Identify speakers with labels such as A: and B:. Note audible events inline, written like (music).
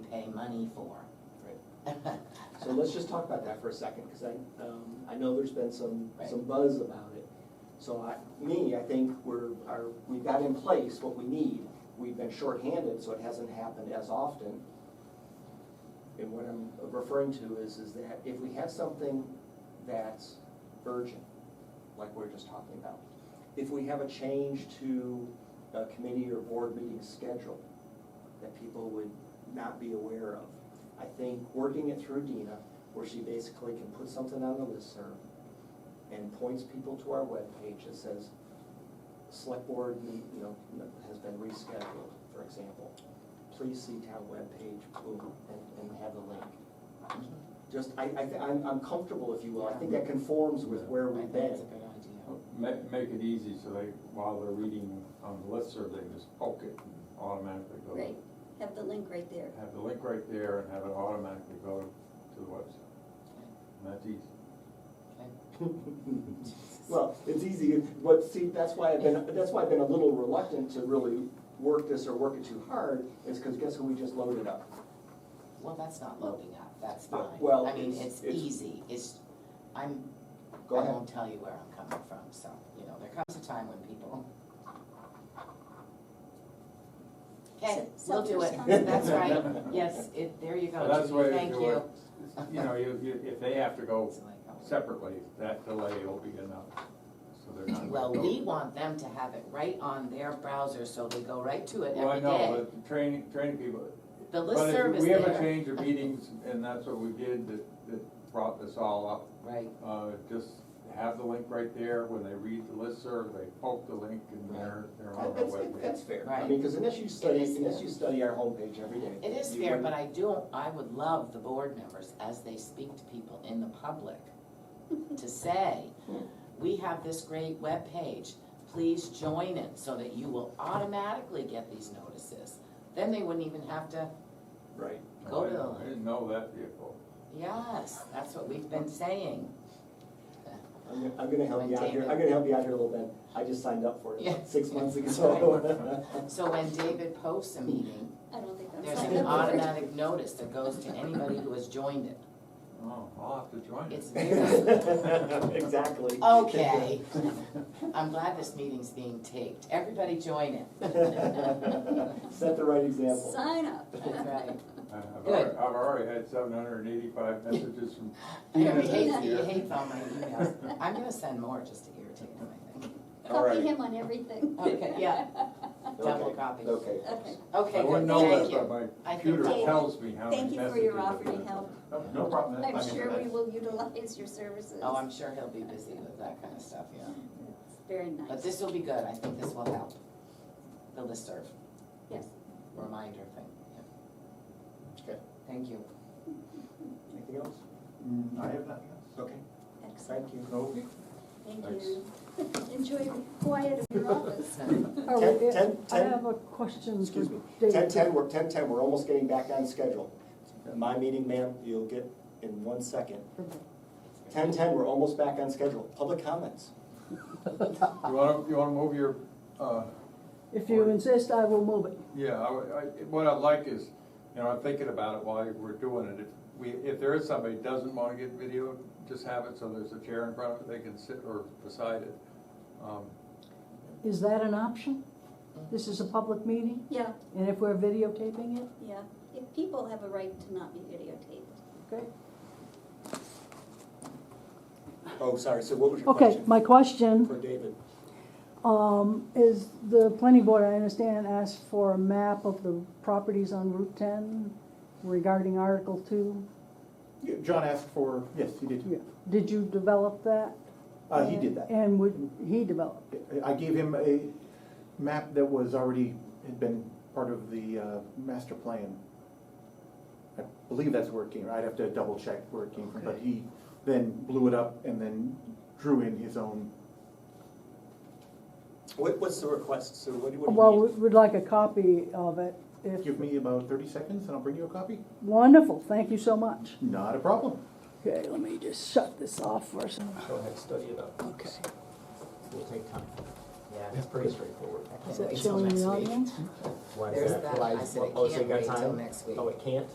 A: pay money for.
B: So let's just talk about that for a second, because I, um, I know there's been some, some buzz about it. So I, me, I think we're, are, we've got in place what we need. We've been shorthanded, so it hasn't happened as often. And what I'm referring to is, is that if we have something that's urgent, like we we're just talking about, if we have a change to a committee or board meeting schedule that people would not be aware of, I think working it through Dina, where she basically can put something on the listserv and points people to our webpage that says, select board, meet," you know, has been rescheduled, for example. Please see town webpage, boom, and, and have the link. Just, I, I, thi- I'm, I'm comfortable, if you will, I think that conforms with where
A: I
B: we've
A: think
B: been.
A: That's a good idea.
C: Make, make it easy so they, while they're reading on the listserv, they just poke it and automatically go.
D: Right, have the link right there.
C: Have the link right there and have it automatically go to the website. And that's easy.
A: Okay,
B: (laughs) Well, it's easy, but see, that's why I've been, that's why I've been a little reluctant to really work this or work it too hard, is because guess who we just loaded up?
A: Well, that's not loading up, that's fine.
B: Well,
A: I mean,
B: it's-
A: it's
B: it's-
A: easy, it's, I'm, I
B: Go ahead.
A: won't tell you where I'm coming from, so, you know, there comes a time when people. Okay, we'll do it,
D: Self-responsibility.
A: that's right, yes, it, there you
C: So
A: go,
C: that's the way
A: Judy,
C: to
A: thank
C: do
A: you.
C: it. You know, you, you, if they have to go
A: It's like, oh.
C: separately, that delay will be enough, so they're not.
A: Well, we want them to have it right on their browser, so they go right to it
C: Well, I
A: every
C: know,
A: day.
C: but training, training people.
A: The
C: But if
A: listserv is
C: We have a
A: there.
C: change of meetings, and that's what we did, that, that brought this all up.
A: Right,
C: Uh, just have the link right there, when they read the listserv, they poke the link and they're, they're on our
B: That's,
A: (laughs)
B: that's
C: webpage.
B: fair, I
A: Right.
B: mean, because unless you study,
A: It is
B: unless
A: fair.
B: you study our homepage every day.
A: it is
B: you
A: fair, but
B: wouldn't-
A: I do, I would love the board members, as they speak to people in the public, to say, we have this great webpage, please join it, so that you will automatically get these notices. Then they wouldn't even have to,
B: Right,
A: Go
C: I
A: to the
C: didn't- I didn't know that vehicle.
A: yes, that's what we've been saying.
B: I'm, gonna- I'm gonna help you out here,
A: Maintain it.
B: I'm gonna help you out here a little bit, I just signed up for it
A: Yeah.
B: about six
A: (laughs)
B: months ago.
A: So when David posts a meeting,
D: I don't think that's.
A: there's
D: how
A: an
D: that works.
A: automatic notice that goes to anybody who has joined it.
C: Oh, I'll have to join it.
A: It's very, (laughs)
B: (laughs) Exactly.
A: okay, I'm glad this meeting's being taped, everybody join it.
B: (laughs)
A: (laughs)
B: (laughs) Set the right example.
D: Sign up.
A: That's right.
C: I- (laughs) I've
A: Good.
C: already, I've already had seven hundred and eighty-five messages from
A: He
C: Tina this
A: hates, he
C: year.
A: hates all my emails, I'm gonna send more just to irritate him, I think.
B: All right.
D: Copy him on everything.
A: Okay, yeah. Double
B: Okay,
A: copy.
B: Okay.
D: (laughs) Okay,
C: I
A: Okay,
C: wouldn't
A: good,
C: know
A: thank
C: that, but
A: you.
C: my
A: I think
C: computer
D: David,
C: tells me how many
D: thank
C: messages.
D: you for your
C: I've
D: offering
C: got.
D: help.
C: No- No problem.
D: I'm sure we will utilize your services.
A: Oh, I'm sure he'll be busy with that kind of stuff, yeah.
D: It's Very nice.
A: But this will be good, I think this will help. The listserv
D: Yes,
A: reminder thing, yeah.
B: Okay.
A: Thank you.
B: Anything else?
C: Mm, I have nothing else.
B: Okay,
D: excellent,
B: thank you.
C: Okay.
D: thank
C: Thanks.
D: you. (laughs) Enjoy the quiet of your
A: (laughs)
D: office.
E: Are
B: Ten-
E: we-
B: ten-
E: Oh, I
B: ten-
E: have a question for
B: Excuse me,
E: David.
B: ten, ten, we're, ten, ten, we're almost getting back on schedule. My meeting, ma'am, you'll get in one second. Ten, ten, we're almost back on schedule. Public comments.
C: You wanna, you wanna move your, uh,
E: If you insist, I will move it.
C: Yeah, I, I, what I'd like is, you know, I'm thinking about it while we're doing it, if we, if there is somebody who doesn't wanna get video, just have it so there's a chair in front of it, they can sit or beside it. Um,
E: Is that an option? This is a public meeting,
D: Yeah,
E: and if we're videotaping it,
D: yeah. If people have a right to not be videotaped.
E: okay?
B: Oh, sorry, so what was your
E: Okay,
B: question?
E: my
B: For
E: question,
B: David.
E: um, is the planning board, I understand, asked for a map of the properties on Route ten regarding Article two?
F: Yeah, John asked for, yes, he did.
E: Did you develop that?
F: Uh, he did that.
E: And would, he developed?
F: I gave him a map that was already, had been part of the uh, master plan. I believe that's where it came, I'd have to double check where it came from, but he then blew it up and then drew in his own.
B: What, what's the request? So what do, what
E: Well,
B: do you
E: we-
B: need?
E: we'd like a copy of it, if,
F: Give me about thirty seconds and I'll bring you a copy.
E: wonderful, thank you so much.
F: Not a problem.
E: Okay, let me just shut this off for a second.
B: Go ahead, study it up.
E: Okay.
B: We'll take time.
A: Yeah.
B: It's pretty straightforward.
A: I can't
E: Is that
A: wait till
E: showing the
A: next week.
E: audience?
B: Why
C: Oh,
A: There's that, I said I can't wait till next week.
B: Oh, it can't?